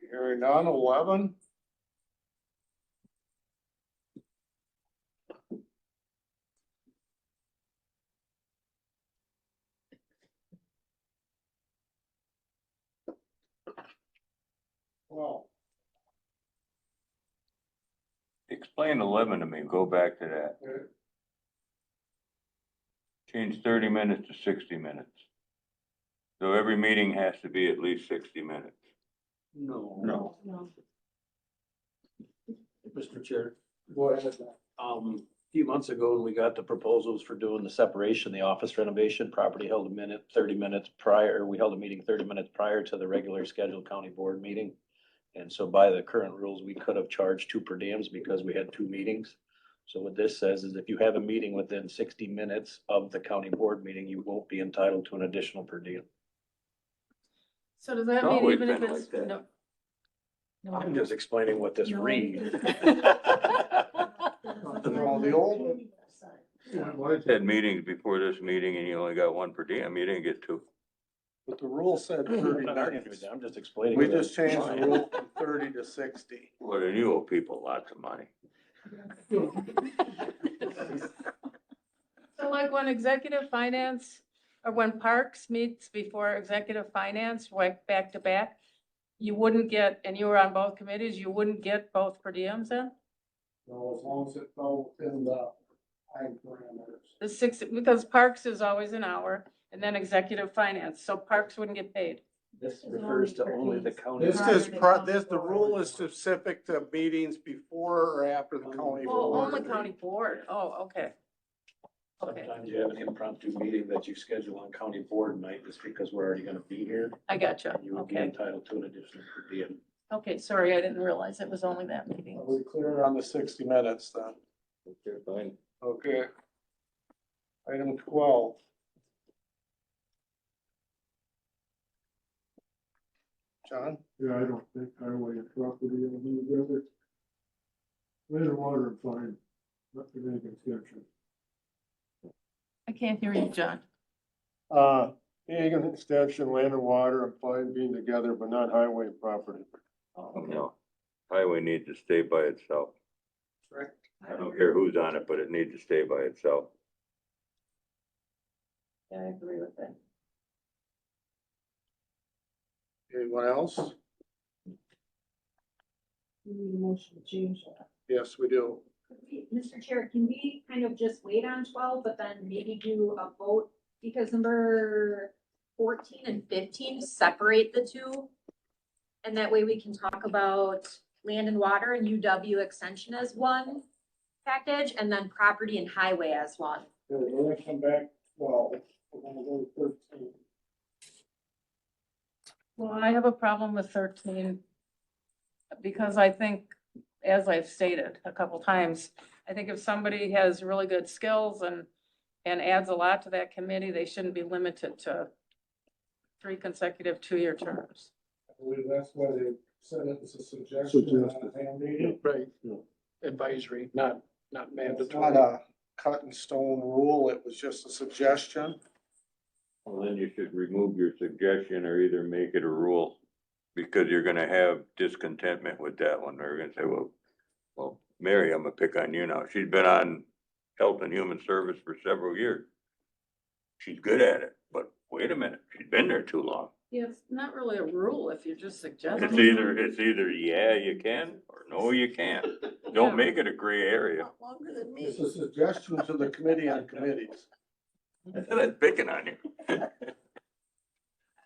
Hearing none, eleven? Well, Explain eleven to me, go back to that. Okay. Change thirty minutes to sixty minutes. So every meeting has to be at least sixty minutes. No. No. Mr. Chair, go ahead. um, a few months ago, when we got the proposals for doing the separation, the office renovation, property held a minute, thirty minutes prior, we held a meeting thirty minutes prior to the regular scheduled county board meeting. And so by the current rules, we could have charged two per diems because we had two meetings. So what this says is if you have a meeting within sixty minutes of the county board meeting, you won't be entitled to an additional per diem. So does that It's mean always even if been it's, like that. no? No. I'm just explaining what this No. reads. Well, the old- I had meetings before this meeting and you only got one per diem, you didn't get two. But the rule said thirty minutes. I'm just explaining. We what just changed line. the rule from thirty to sixty. Well, then you owe people lots of money. So like when executive finance, or when parks meets before executive finance, like back to back, you wouldn't get, and you were on both committees, you wouldn't get both per diems then? No, as long as it fell within the time parameters. The six, because parks is always an hour, and then executive finance, so parks wouldn't get paid. This refers to only the county. This is, pro- this, the rule is specific to meetings before or after the county Oh, board. only county board, oh, okay. Okay, Sometimes you have an impromptu meeting that you schedule on county board night just because we're already gonna be here. I gotcha, You would be okay, entitled to an additional per diem. okay, sorry, I didn't realize it was only that meeting. Are we clear on the sixty minutes then? Okay. Item twelve. John? Yeah, I don't think highway and property will be together. Land and water and fine, not to make exception. I can't hear you, John. Uh, being an extension, land and water and fine being together, but not highway and property. No. Highway needs to stay by itself. I don't care who's on it, but it needs to stay by itself. Yeah, I agree with that. Anyone else? We need a motion to change that. Yes, we do. Mr. Chair, can we kind of just wait on twelve, but then maybe do a vote? Because number fourteen and fifteen separate the two. And that way we can talk about land and water and UW extension as one package and then property and highway as one. Okay, We're gonna come back, well, we're gonna go to thirteen. Well, I have a problem with thirteen. Because I think, as I've stated a couple times, I think if somebody has really good skills and, and adds a lot to that committee, they shouldn't be limited to three consecutive two-year terms. I believe that's why they said it was a suggestion, not a hand meeting. Right, advisory, not, not It's mandatory. not a cut and stone rule, it was just a suggestion. Well, then you should remove your suggestion or either make it a rule, because you're gonna have discontentment with that one, they're gonna say, well, well, Mary, I'm gonna pick on you now, she's been on Health and Human Service for several years. She's good at it, but wait a minute, she's been there too long. Yeah, it's not really a rule if you're just suggesting. It's either, it's either yeah, you can, or no, you can't, don't make it a gray area, Longer than It's a suggestion to the committee on committees. that's picking on you.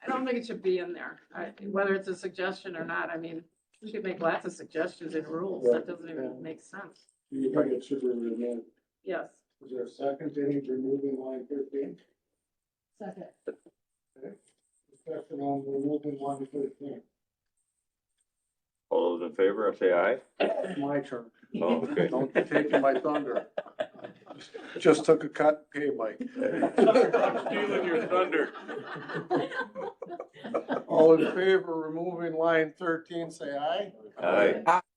I don't think it should be in there, I- whether it's a suggestion or not. I mean, you could make lots of suggestions and rules. That doesn't even make sense. Do you think it should be removed? Yes. Is there a second to any removing line fifteen? Second. Discussion on removing line fifteen. All those in favor, say aye. My turn. Oh, okay. Don't be taking my thunder. Just took a cut, pay Mike. I'm stealing your thunder. All in favor of removing line thirteen, say aye. Aye.